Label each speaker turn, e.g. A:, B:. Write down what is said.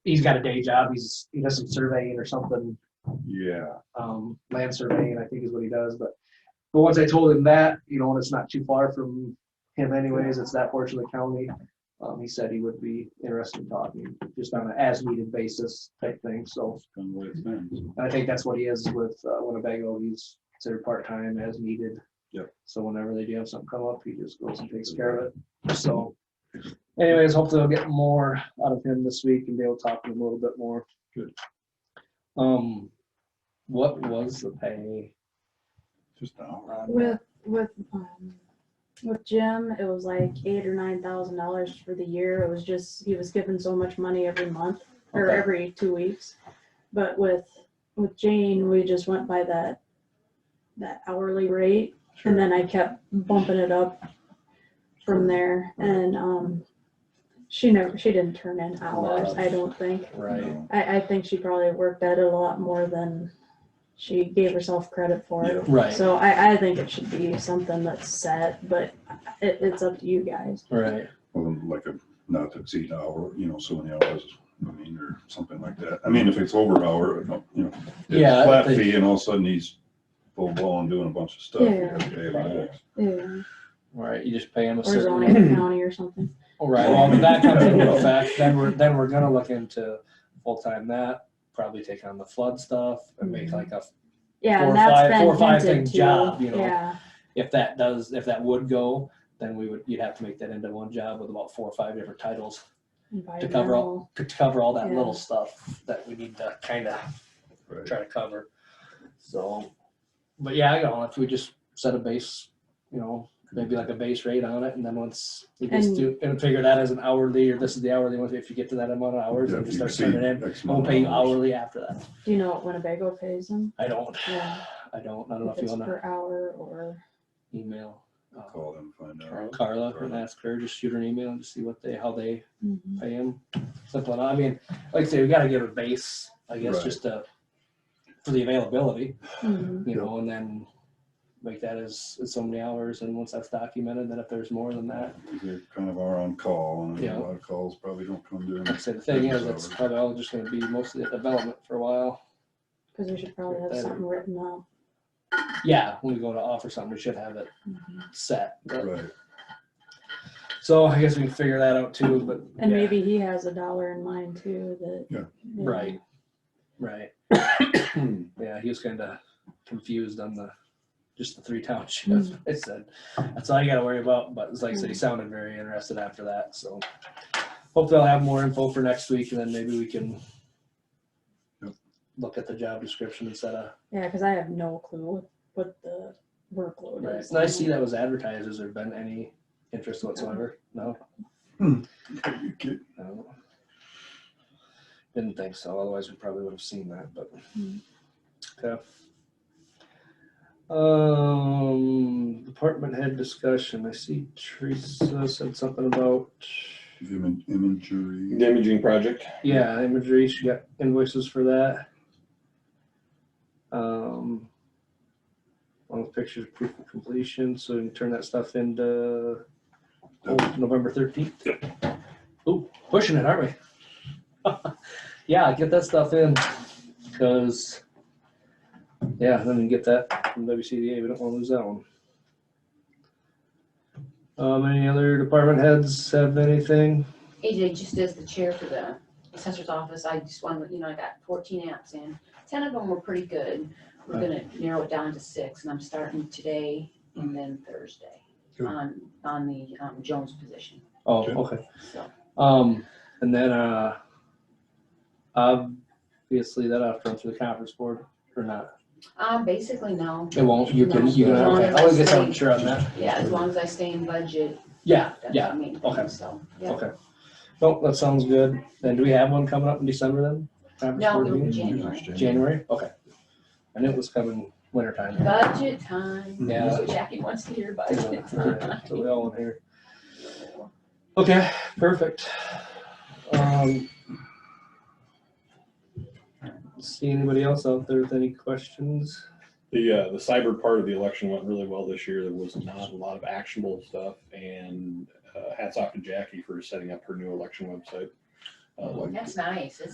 A: he's got a day job. He's he does some surveying or something,
B: Yeah,
A: um, land surveying, I think is what he does. But but once I told him that, you know, and it's not too far from him anyways, it's that portion of the county. Um, he said he would be interested in talking, just on an as needed basis type thing. So
B: it's kind of what it's been.
A: and I think that's what he is with uh, Winnebago. He's considered part time as needed.
B: Yep.
A: So whenever they do have something come up, he just goes and takes care of it. So anyways, hopefully I'll get more out of him this week and be able to talk to him a little bit more.
B: Good.
A: Um, what was the pay?
B: Just an hour.
A: on that?
C: With, with, um, with Jim, it was like eight or nine thousand dollars for the year. It was just, he was given so much money every month or
A: Okay.
C: every two weeks. But with, with Jane, we just went by that, that hourly rate. And then I kept bumping it up from there and, um, she never, she didn't turn in hours, I don't think.
A: Right.
B: No.
C: I, I think she probably worked at it a lot more than she gave herself credit for.
B: Yeah.
A: Right.
C: So I, I think it should be something that's set, but it, it's up to you guys.
A: Right.
B: Well, like a, not to exceed an hour, you know, so many hours, I mean, or something like that. I mean, if it's over an hour, no, you know. if it's
A: Yeah,
B: Flat
A: they-
B: fee and all of a sudden he's full blown doing a bunch of stuff. you
C: Yeah.
B: gotta pay him back.
C: Yeah.
D: Right, you just pay them a
C: Or
D: certain.
C: zoning county or something.
D: All Right, well, if that comes into effect, then we're, then we're gonna look into full-time that, probably take on the flood stuff and make like a,
C: Yeah,
D: Four or
C: and that's
D: five-
C: been
D: four or five
C: hinted
D: thing
C: to.
D: job, you know.
C: Yeah,
D: if that does, if that would go, then we would, you'd have to make that into one job with about four or five different titles to cover all, to cover all that
C: Yeah.
D: little stuff that we need to kind of
B: Right.
D: try to cover. So, but yeah, you know, if we just set a base, you know, maybe like a base rate on it, and then once you just
C: And-
D: do, and figure that as an hourly, or this is the hourly, once if you get to that amount of hours,
B: Yeah,
D: then
B: if
D: you
B: you
D: start
B: exceed
D: turning in,
B: X
D: I won't
B: amount
D: pay you
B: of hours.
D: hourly after that.
C: Do you know what Winnebago pays them?
D: I don't,
C: Yeah.
D: I don't, I don't know
C: If
D: if you
C: it's
D: wanna
C: per hour or,
D: email uh,
B: Call them, find out.
D: Carla Carla and ask her, just shoot her an email and just see what they, how they pay him. Simple, enough. I mean, like I say, we gotta give a base, I guess,
B: Right.
D: just to, for the availability.
C: Mhm.
D: you
B: Yeah.
D: know, and then make that as, as so many hours, and once that's documented, then if there's more than that,
B: They're kind of our on call and
D: Yeah.
B: a lot of calls probably don't come during.
D: like I said, the thing is, it's
B: Hours.
D: probably all just gonna be mostly at development for a while.
C: cause we should probably have
D: Better.
C: something written up.
D: Yeah, when we go to offer something, we should have it
C: Mhm.
D: set, but-
B: Right,
D: so I guess we can figure that out too, but.
C: And
D: yeah,
C: maybe he has a dollar in mind too, that.
B: Yeah.
C: you know,
D: Right, right, yeah, he was kinda confused on the, just the three townships,
C: Mm.
D: I said, that's all you gotta worry about, but it's like, I said, he sounded very interested after that, so. Hopefully I'll have more info for next week, and then maybe we can
B: Yep.
D: look at the job description instead of,
C: Yeah, cause I have no clue what the workload is.
D: and I see that was advertised, has there been any interest whatsoever? No?
B: You get-
D: No. Didn't think so, otherwise we probably would have seen that, but.
C: Hmm.
D: Okay. Um, department head discussion, I see Teresa said something about,
B: Im- Imagery,
E: The imaging project.
D: yeah, imagery, she got invoices for that. Um. Along with pictures, proof of completion, so we can turn that stuff into oh, November thirteenth. Ooh, pushing it, aren't we? Yeah, get that stuff in, cause, yeah, then we get that from WCDA, we don't wanna lose that one. Um, any other department heads have anything?
F: AJ just as the chair for the assessor's office, I just wanted, you know, I got fourteen apps in. Ten of them were pretty good. We're gonna narrow it down to six and I'm starting today and then Thursday
B: Good.
F: on, on the um, Jones position,
D: Oh,
B: Okay.
D: okay,
F: so.
D: um, and then, uh, obviously that ought to run through the conference board, or not,
F: Um, basically no,
D: it won't, you can, you can,
B: No.
D: okay, I'll get something sure on that,
F: yeah, as long as I stay in budget,
D: yeah,
F: that's
D: yeah,
F: the main
D: okay.
F: thing, so, yeah.
D: okay. Nope, that sounds good, then do we have one coming up in December then? Conference
F: No,
D: board
F: it'll be
D: meeting?
F: January.
D: January, okay. I knew it was coming wintertime.
F: Budget time.
D: Yeah.
F: That's what Jackie wants to hear budget
D: So
F: time.
D: we all in here. Okay, perfect. Um. See anybody else out there with any questions?
E: The, uh, the cyber part of the election went really well this year. There was not a lot of actionable stuff and uh, hats off to Jackie for setting up her new election website. Uh,
F: That's nice, It's